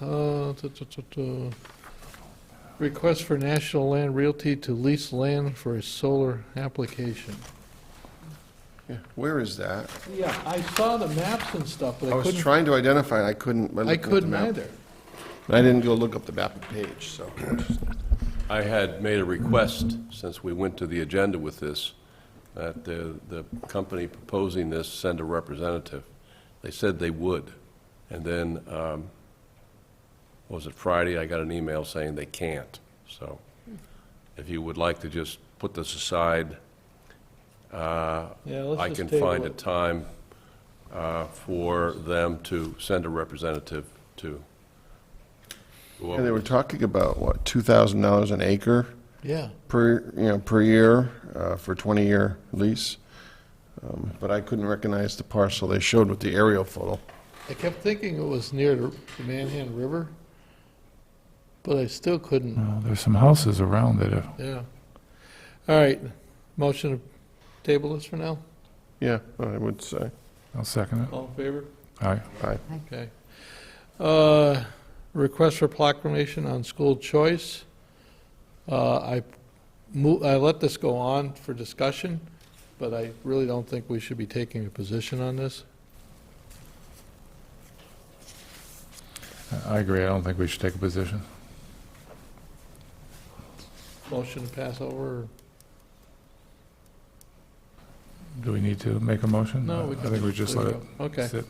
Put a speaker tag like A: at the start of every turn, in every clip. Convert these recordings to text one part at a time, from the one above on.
A: Uh, tu- tu- tu- tu. Request for National Land Realty to lease land for a solar application.
B: Yeah, Where is that?
A: Yeah, I saw the maps and stuff, but
B: I
A: I
B: was
A: couldn't,
B: trying to identify, it. I couldn't. by
A: I
B: looking at the
A: couldn't
B: map.
A: either.
B: But I didn't go look up the map page, so.
C: I had made a request, since we went to the agenda with this, that the, the company proposing this send a representative. They said they would. And then, um, what was it Friday, I got an email saying they can't. So if you would like to just put this aside, uh,
A: Yeah, let's
C: I
A: just
C: can
A: table
C: find a
A: it.
C: time uh, for them to send a representative to. go over
B: And they were
C: this.
B: talking about, what, $2,000 an acre
A: Yeah,
B: per, you know, per year uh, for 20-year lease? Um, But I couldn't recognize the parcel they showed with the aerial photo.
A: I kept thinking it was near the Manhan River, but I still couldn't,
D: No, there's some houses around it. uh,
A: yeah. All right, motion to table this for now?
B: Yeah, I would say.
D: I'll second it.
A: All in favor?
D: All right.
B: Aye.
A: Okay. Uh, Request for proclamation on school choice. Uh, I mo, I let this go on for discussion, but I really don't think we should be taking a position on this.
D: I- I agree. I don't think we should take a position.
A: Motion to pass over?
D: Do we need to make a motion?
A: No, we
D: I
A: can
D: think we just let it
A: Okay.
D: sit.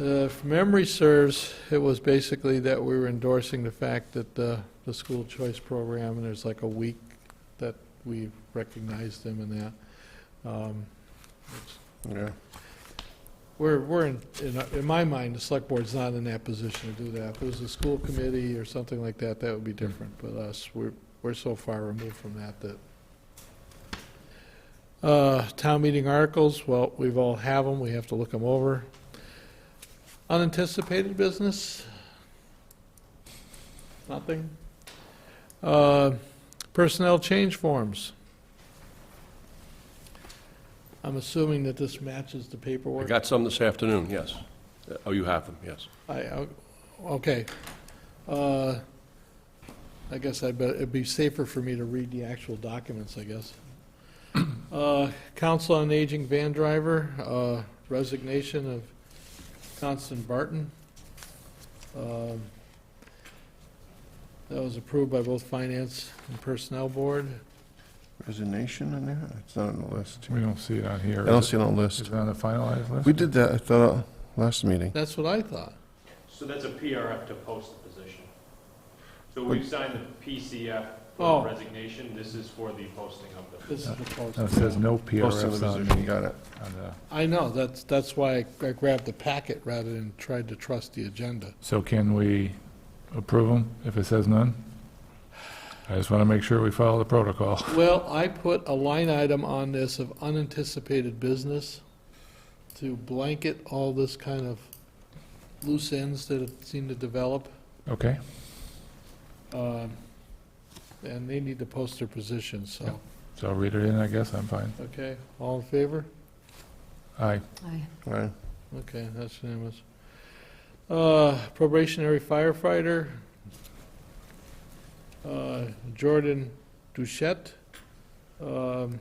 A: Uh, If memory serves, it was basically that we were endorsing the fact that uh, the school choice program, and there's like a week that we recognized them and that. Um, it's-
B: Yeah.
A: We're, we're in, in in my mind, the select board's not in that position to do that. If it was a school committee or something like that, that would be different, but us, we're, we're so far removed from that that. Uh, town meeting articles, well, we've all have them, we have to look them over. Unanticipated business? Nothing? Uh, personnel change forms? I'm assuming that this matches the
C: I
A: paperwork.
C: got some this afternoon, yes. Oh, you have them, yes.
A: I, I- okay. Uh, I guess I'd bet, it'd be safer for me to read the actual documents, I guess. Uh, Council on Aging van driver, uh, resignation of Constant Barton. Um, That was approved by both Finance and Personnel Board.
B: Resignation in there? It's not on the list.
D: We don't see it on here.
B: I
D: is
B: don't
D: it?
B: see it on the
D: Is
B: list.
D: it on the finalized list?
B: We did that, I thought, last meeting.
A: That's what I thought.
E: So that's a PRF to post the position. So we've signed the PCF
A: Oh.
E: for resignation, this is for the posting of the.
A: This is the
D: No, It
A: post.
D: says no
B: Posting
D: PRFs
B: the
D: on
B: position,
D: the,
B: got it.
D: on the,
A: I know, that's, that's why I grabbed the packet rather than tried to trust the agenda.
D: so can we approve them if it says none? I just want to make sure we follow the protocol.
A: Well, I put a line item on this of unanticipated business to blanket all this kind of loose ends that have seemed to develop.
D: Okay,
A: um, And they need to post their positions, so,
D: so I'll read it in, I guess. I'm fine.
A: okay, all in favor?
D: Aye.
F: Aye.
B: Aye.
A: Okay, that's unanimous. Uh, Probationary firefighter, uh, Jordan Duchette. um,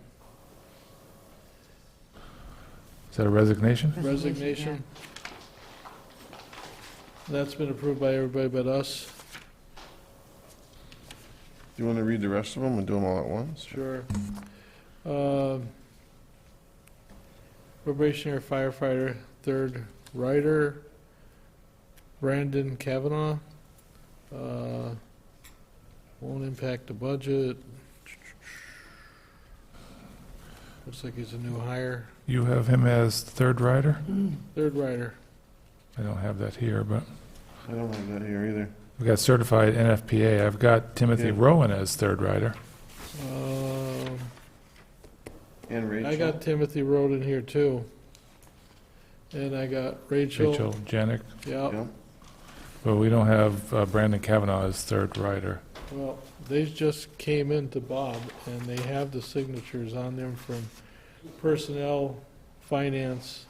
D: Is that a resignation?
A: Resignation. That's been approved by everybody but us.
B: Do you want to read the rest of them and do them all at once?
A: Sure. Um, Probationary firefighter, third rider, Brandon Kavanaugh. Uh, Won't impact the budget. Looks like he's a new hire,
D: You have him as third rider?
A: third rider.
D: I don't have that here, but
B: I don't have that here either.
D: we've got certified NFPA. I've got Timothy
B: Yeah.
D: Rowan as third rider.
A: Um,
B: And Rachel?
A: I got Timothy Road in here too. And I got Rachel,
D: Rachel Janik.
A: yeah,
B: Yep.
D: But we don't have uh, Brandon Kavanaugh as third rider.
A: well, they just came in to Bob, and they have the signatures on them from Personnel, Finance,